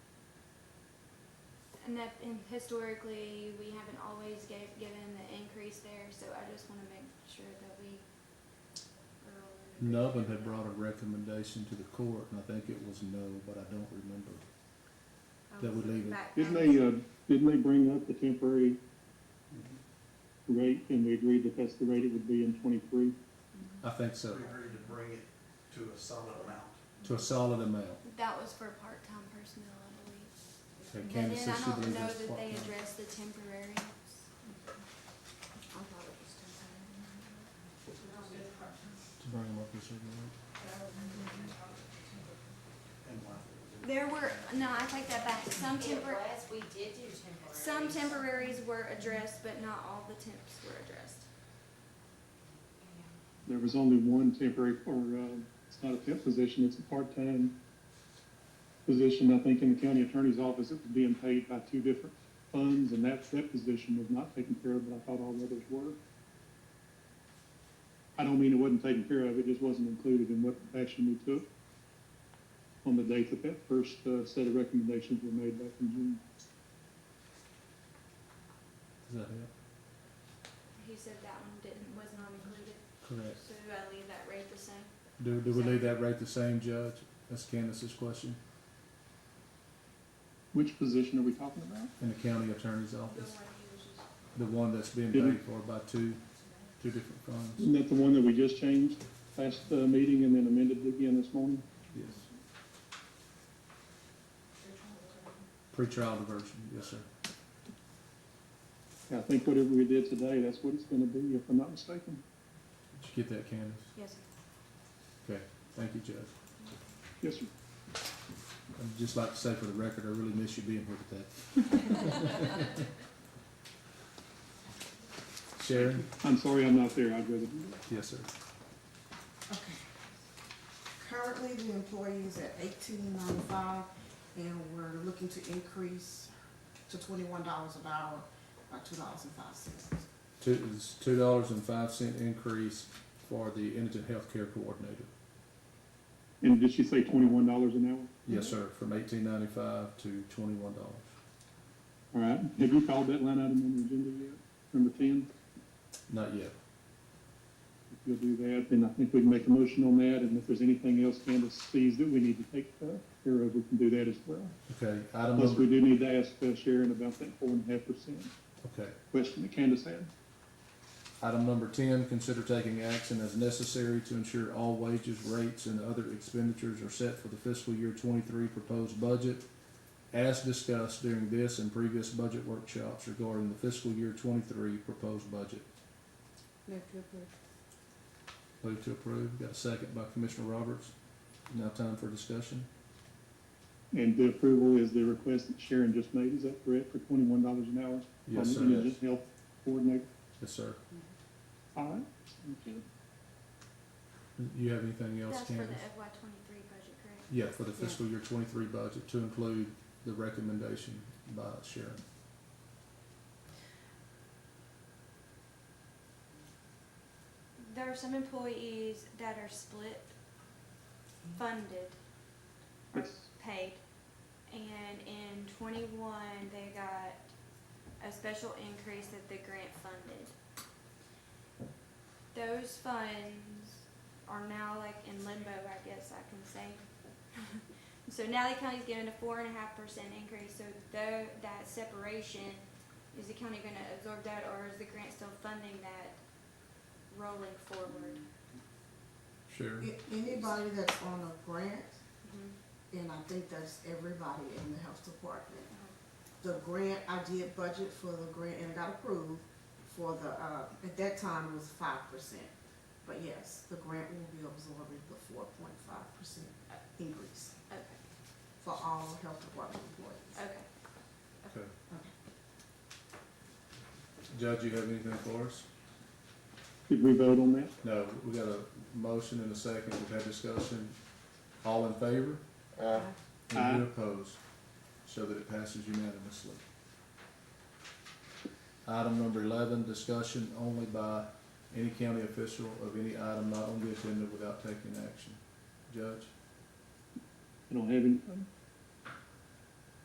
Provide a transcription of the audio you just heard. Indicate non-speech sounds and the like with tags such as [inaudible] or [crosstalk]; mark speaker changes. Speaker 1: And that, and historically, we haven't always gave, given the increase there, so I just wanna make sure that we. are all-
Speaker 2: Nubbin had brought a recommendation to the court, and I think it was no, but I don't remember.
Speaker 1: I
Speaker 2: that
Speaker 1: was
Speaker 2: would leave it.
Speaker 1: Oh, back-
Speaker 3: Didn't they, uh, didn't they bring up the temporary rate and we agreed that that's the rate it would be in twenty-three?
Speaker 2: I think
Speaker 4: We
Speaker 2: so,
Speaker 4: agreed to bring it to a solid amount.
Speaker 2: to a solid amount.
Speaker 1: That was for part-time personnel, I believe.
Speaker 2: And
Speaker 1: But
Speaker 2: Candace
Speaker 1: then
Speaker 2: said
Speaker 1: I
Speaker 2: she
Speaker 1: don't
Speaker 2: believed
Speaker 1: know
Speaker 2: that's
Speaker 1: that they
Speaker 2: part-time.
Speaker 1: addressed the temporary.
Speaker 5: I thought it was temporary.
Speaker 2: To bring them up to a certain amount.
Speaker 4: And why?
Speaker 1: There were, no, I take that back, some
Speaker 5: It
Speaker 1: temporary,
Speaker 5: was, we did do temporary.
Speaker 1: some temporaries were addressed, but not all the temps were addressed.
Speaker 3: There was only one temporary, or, uh, it's not a temp position, it's a part-time position, I think, in the county attorney's office. It was being paid by two different funds and that, that position was not taken care of, but I thought all the others were. I don't mean it wasn't taken care of, it just wasn't included in what action we took on the date that that first, uh, set of recommendations were made back in June.
Speaker 2: Does that help?
Speaker 1: He said that one didn't, was not included,
Speaker 2: Correct.
Speaker 1: so do I leave that rate the same?
Speaker 2: Do, do we leave that rate the same, Judge? That's Candace's question,
Speaker 3: Which position are we talking about?
Speaker 2: in the county attorney's
Speaker 1: The
Speaker 2: office,
Speaker 1: one he was just.
Speaker 2: the one that's being
Speaker 3: Did we-
Speaker 2: paid for by two, two different funds.
Speaker 3: Isn't that the one that we just changed last, uh, meeting and then amended again this morning?
Speaker 2: Yes. Pretrial diversion, yes, sir.
Speaker 3: I think whatever we did today, that's what it's gonna be, if I'm not mistaken.
Speaker 2: Did you get that, Candace?
Speaker 1: Yes, sir.
Speaker 2: Okay, thank you, Judge.
Speaker 3: Yes, sir.
Speaker 2: I'd just like to say for the record, I really miss you being here today. Sharon?
Speaker 3: I'm sorry I'm not there, I'd rather.
Speaker 2: Yes, sir.
Speaker 6: Okay. Currently, the employee is at eighteen ninety-five, and we're looking to increase to twenty-one dollars an hour, by two dollars and five cents.
Speaker 2: Two, it's two dollars and five cent increase for the indigent healthcare coordinator.
Speaker 3: And did she say twenty-one dollars an hour?
Speaker 2: Yes, sir, from eighteen ninety-five to twenty-one dollars.
Speaker 3: All right, have you called that line item on the agenda yet? Number ten?
Speaker 2: Not yet.
Speaker 3: If you'll do that, then I think we can make a motion on that, and if there's anything else Candace sees that we need to take uh, care of, we can do that as well.
Speaker 2: Okay, item
Speaker 3: Plus,
Speaker 2: number,
Speaker 3: we do need to ask uh, Sharon about that four and a half percent
Speaker 2: okay.
Speaker 3: question that Candace had.
Speaker 2: Item number ten, consider taking action as necessary to ensure all wages, rates, and other expenditures are set for the fiscal year twenty-three proposed budget as discussed during this and previous budget workshops regarding the fiscal year twenty-three proposed budget.
Speaker 6: Move to approve.
Speaker 2: Move to approve. Got a second by Commissioner Roberts. Now time for discussion.
Speaker 3: And the approval is the request that Sharon just made, is that correct, for twenty-one dollars an hour?
Speaker 2: Yes,
Speaker 3: From the
Speaker 2: sir.
Speaker 3: indigent health coordinator,
Speaker 2: Yes, sir.
Speaker 3: all right, thank you.
Speaker 2: You have anything else,
Speaker 1: That's for the
Speaker 2: Candace?
Speaker 1: FY twenty-three budget, correct?
Speaker 2: Yeah, for the fiscal year twenty-three budget to include the recommendation by Sharon.
Speaker 1: There are some employees that are split funded, or
Speaker 3: Yes.
Speaker 1: paid. And in twenty-one, they got a special increase that the grant funded. Those funds are now like in limbo, I guess I can say. [laughs] So now the county's given a four and a half percent increase, so though that separation, is the county gonna absorb that or is the grant still funding that rolling forward?
Speaker 2: Sharon?
Speaker 6: A- Anybody that's on a grant,
Speaker 1: Mm-hmm.
Speaker 6: and I think that's everybody in the health department. The grant, I did budget for the grant and it got approved for the, uh, at that time it was five percent. But yes, the grant will be absorbing the four point five percent increase
Speaker 1: Okay,
Speaker 6: for all health department employees.
Speaker 1: okay.
Speaker 2: Okay. Judge, you have anything for us?
Speaker 3: Did we vote on that?
Speaker 2: No, we got a motion and a second. We've had discussion. All in favor? Any
Speaker 3: Aye.
Speaker 2: opposed? So that it passes unanimously. Item number eleven, discussion only by any county official of any item not on the agenda without taking action. Judge?
Speaker 3: I don't have anything.